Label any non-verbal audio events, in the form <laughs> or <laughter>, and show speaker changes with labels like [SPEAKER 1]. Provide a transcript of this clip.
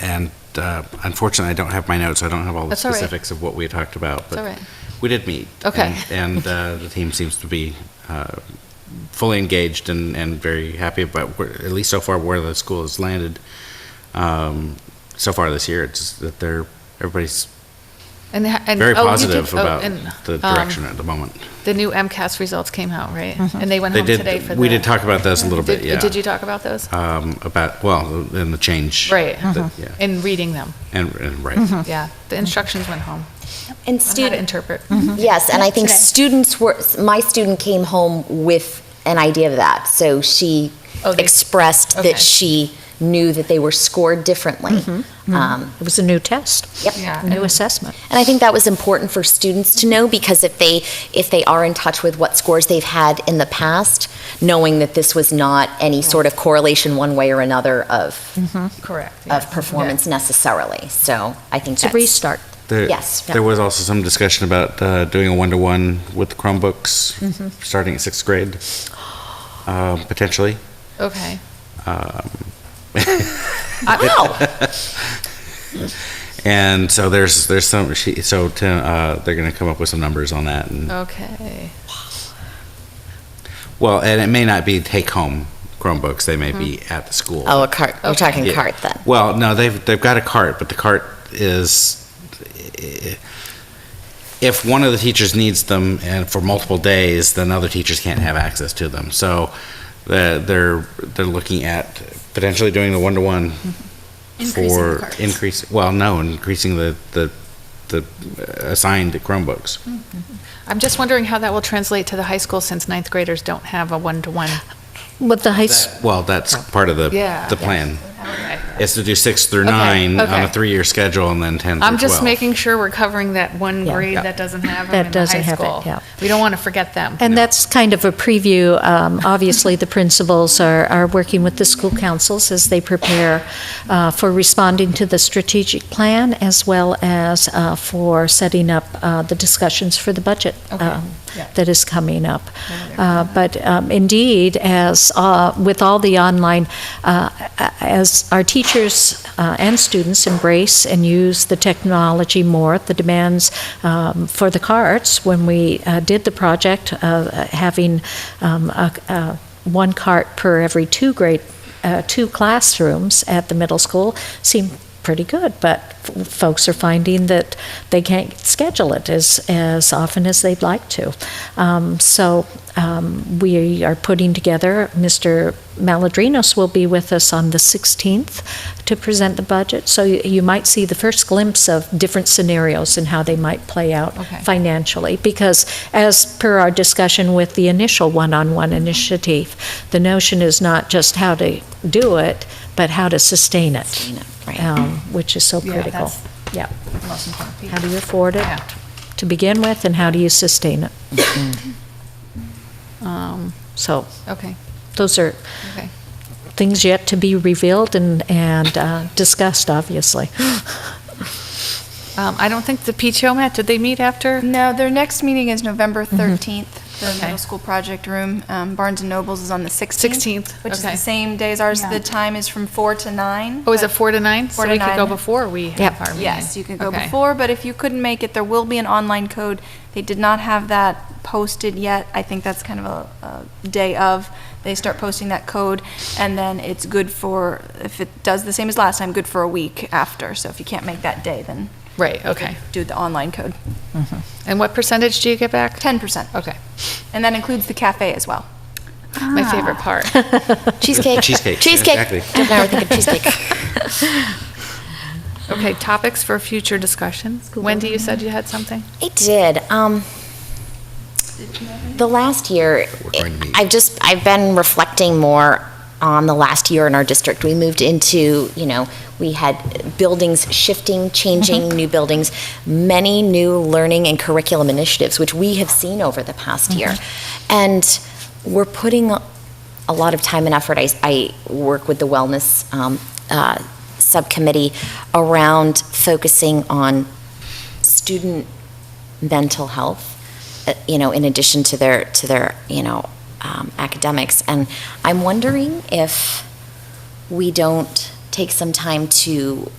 [SPEAKER 1] And uh, unfortunately, I don't have my notes. I don't have all the
[SPEAKER 2] That's all right.
[SPEAKER 1] specifics of what we talked about.
[SPEAKER 2] It's all right.
[SPEAKER 1] We did meet.
[SPEAKER 2] Okay.
[SPEAKER 1] And and, uh, the team seems to be uh, fully engaged and, and very happy about, where- at least so far, where the school has landed. Um, So far this year, it's that they're, everybody's
[SPEAKER 2] And, they ha- and-
[SPEAKER 1] very
[SPEAKER 2] oh, you did-
[SPEAKER 1] positive
[SPEAKER 2] oh,
[SPEAKER 1] about
[SPEAKER 2] and,
[SPEAKER 1] the
[SPEAKER 2] um,
[SPEAKER 1] direction at the moment.
[SPEAKER 2] The new MCAS results came out, right?
[SPEAKER 3] Mm-hmm.
[SPEAKER 2] And they went
[SPEAKER 1] They
[SPEAKER 2] home
[SPEAKER 1] did-
[SPEAKER 2] today for the.
[SPEAKER 1] we did talk about those a little bit,
[SPEAKER 2] Did-
[SPEAKER 1] yeah.
[SPEAKER 2] Did you talk about those?
[SPEAKER 1] um, about, well, and the change.
[SPEAKER 2] Right. Uh-huh. Mm-hmm.
[SPEAKER 1] that- Yeah,
[SPEAKER 2] In reading them,
[SPEAKER 1] and, and right.
[SPEAKER 2] yeah. The instructions went home
[SPEAKER 4] And
[SPEAKER 2] on how to
[SPEAKER 4] student,
[SPEAKER 2] interpret.
[SPEAKER 3] Mm-hmm.
[SPEAKER 4] yes, and I think
[SPEAKER 3] Today.
[SPEAKER 4] students were, my student came home with an idea of that. So she
[SPEAKER 2] Oh, they-
[SPEAKER 4] expressed
[SPEAKER 2] okay. Mm-hmm.
[SPEAKER 4] that she knew that they were scored differently. Um,
[SPEAKER 3] It was a new test,
[SPEAKER 4] Yep.
[SPEAKER 2] Yeah.
[SPEAKER 3] a new assessment.
[SPEAKER 4] And I think that was important for students to know because if they, if they are in touch with what scores they've had in the past, knowing that this was not any sort of correlation one way or another of,
[SPEAKER 2] Correct. Mm-hmm.
[SPEAKER 3] Uh,
[SPEAKER 2] yeah.
[SPEAKER 4] of performance necessarily. So I think
[SPEAKER 3] It's a
[SPEAKER 4] that's.
[SPEAKER 3] restart.
[SPEAKER 1] There-
[SPEAKER 4] Yes.
[SPEAKER 1] There was also some discussion about uh, doing a one-to-one with
[SPEAKER 4] Mm-hmm.
[SPEAKER 1] Chromebooks, starting at sixth grade, um, potentially.
[SPEAKER 2] Okay.
[SPEAKER 4] Wow.
[SPEAKER 1] And so there's, there's some, she, so to, uh, they're going to come up with some numbers on that.
[SPEAKER 4] Oh.
[SPEAKER 1] And,
[SPEAKER 2] Okay.
[SPEAKER 1] well, and it may not be take-home Chromebooks, they may be at the school.
[SPEAKER 4] Oh, a cart, we're
[SPEAKER 2] Okay.
[SPEAKER 4] talking
[SPEAKER 1] Yeah.
[SPEAKER 4] cart then.
[SPEAKER 1] Well, no, they've, they've got a cart, but the cart is, if one of the teachers needs them and for multiple days, then other teachers can't have access to them. So they're, they're they're looking at potentially doing the one-to-one
[SPEAKER 2] Mm-hmm.
[SPEAKER 1] for increase, well, no, increasing the, the, the assigned
[SPEAKER 2] Mm-hmm.
[SPEAKER 1] Chromebooks.
[SPEAKER 2] I'm just wondering how that will translate to the high school since ninth graders don't have a one-to-one.
[SPEAKER 3] But the high, s-
[SPEAKER 1] That- Well, that's part of the,
[SPEAKER 2] Yeah.
[SPEAKER 1] the plan.
[SPEAKER 2] Okay.
[SPEAKER 1] Is to do six through
[SPEAKER 2] Okay,
[SPEAKER 1] nine on a
[SPEAKER 2] okay.
[SPEAKER 1] three-year schedule and then 10 through 12.
[SPEAKER 2] I'm just making sure we're covering that one
[SPEAKER 3] Yeah.
[SPEAKER 2] grade
[SPEAKER 1] Yeah.
[SPEAKER 2] that doesn't have them
[SPEAKER 3] That
[SPEAKER 2] in the
[SPEAKER 3] doesn't
[SPEAKER 2] high
[SPEAKER 3] have it,
[SPEAKER 2] school.
[SPEAKER 3] yeah.
[SPEAKER 2] We don't want to forget them.
[SPEAKER 3] and that's kind of a preview. Um, Obviously, the principals are, are working with the school councils as they prepare uh, for responding to the strategic plan as well as uh, for setting up uh, the discussions for the budget
[SPEAKER 2] Okay.
[SPEAKER 3] um,
[SPEAKER 2] Yeah.
[SPEAKER 3] that is coming up. Uh, But um, indeed, as, uh, with all the online, uh, a- as our teachers uh, and students embrace and use the technology more, the demands um, for the carts, when we uh, did the project, uh, having um, a- a- one cart per every two grade, uh, two classrooms at the middle school seemed pretty good, but f- folks are finding that they can't schedule it as, as often as they'd like to. Um, so um, we are putting together, Mr. Maladrinos will be with us on the 16th to present the budget. So you, you might see the first glimpse of different scenarios and how they might play out
[SPEAKER 2] Okay.
[SPEAKER 3] financially. Because as per our discussion with the initial one-on-one initiative, the notion is not just how to do it, but how to sustain it
[SPEAKER 4] You know, right.
[SPEAKER 3] um, which is so
[SPEAKER 2] Yeah,
[SPEAKER 3] critical.
[SPEAKER 2] that's
[SPEAKER 3] Yeah.
[SPEAKER 2] the most important piece.
[SPEAKER 3] How do you afford it
[SPEAKER 2] Yeah.
[SPEAKER 3] to begin with, and how do you sustain it?
[SPEAKER 2] Um,
[SPEAKER 3] So
[SPEAKER 2] Okay,
[SPEAKER 3] those are
[SPEAKER 2] okay.
[SPEAKER 3] things yet to be revealed and, and uh, discussed, obviously.
[SPEAKER 2] Um, I don't think the PTO met, did they meet after?
[SPEAKER 5] No, their next meeting is November 13th, the
[SPEAKER 2] Mm-hmm. Okay.
[SPEAKER 5] middle school project room. Um, Barnes and Noble's is on the 16th.
[SPEAKER 2] 16th,
[SPEAKER 5] Which is
[SPEAKER 2] okay.
[SPEAKER 5] the same day as ours.
[SPEAKER 6] Yeah.
[SPEAKER 5] The time is from 4 to 9.
[SPEAKER 2] Oh, is it
[SPEAKER 5] but-
[SPEAKER 2] four to nine?
[SPEAKER 5] Four to
[SPEAKER 2] So we could go
[SPEAKER 5] nine.
[SPEAKER 2] before we have
[SPEAKER 3] Yep.
[SPEAKER 2] our meeting?
[SPEAKER 5] Yes, you can go
[SPEAKER 2] Okay.
[SPEAKER 5] before, but if you couldn't make it, there will be an online code. They did not have that posted yet. I think that's kind of a, a day of. They start posting that code, and then it's good for, if it does the same as last time, good for a week after. So if you can't make that day, then
[SPEAKER 2] Right, okay.
[SPEAKER 5] do the online code.
[SPEAKER 2] And what percentage do you get back?
[SPEAKER 5] 10%.
[SPEAKER 2] Okay,
[SPEAKER 5] And that includes the cafe as well.
[SPEAKER 2] my
[SPEAKER 5] Ah.
[SPEAKER 2] favorite part.
[SPEAKER 5] <laughs>
[SPEAKER 4] Cheesecake.
[SPEAKER 1] Cheesecake,
[SPEAKER 4] Cheesecake.
[SPEAKER 1] exactly.
[SPEAKER 2] <laughs>
[SPEAKER 4] Now we're thinking cheesecake.
[SPEAKER 2] Okay, topics for future discussion. Wendy, you said you had something?
[SPEAKER 4] It did. Um, the last year,
[SPEAKER 1] We're going to meet.
[SPEAKER 4] I've just I've been reflecting more on the last year in our district. We moved into you know we had buildings shifting, changing, new buildings, many new learning and curriculum initiatives, which we have seen over the past year, and we're putting a lot of time and effort. I, I work with the wellness um, uh, subcommittee around focusing on student mental health, uh, you know, in addition to their to their you know um, academics. And I'm wondering if we don't take some time to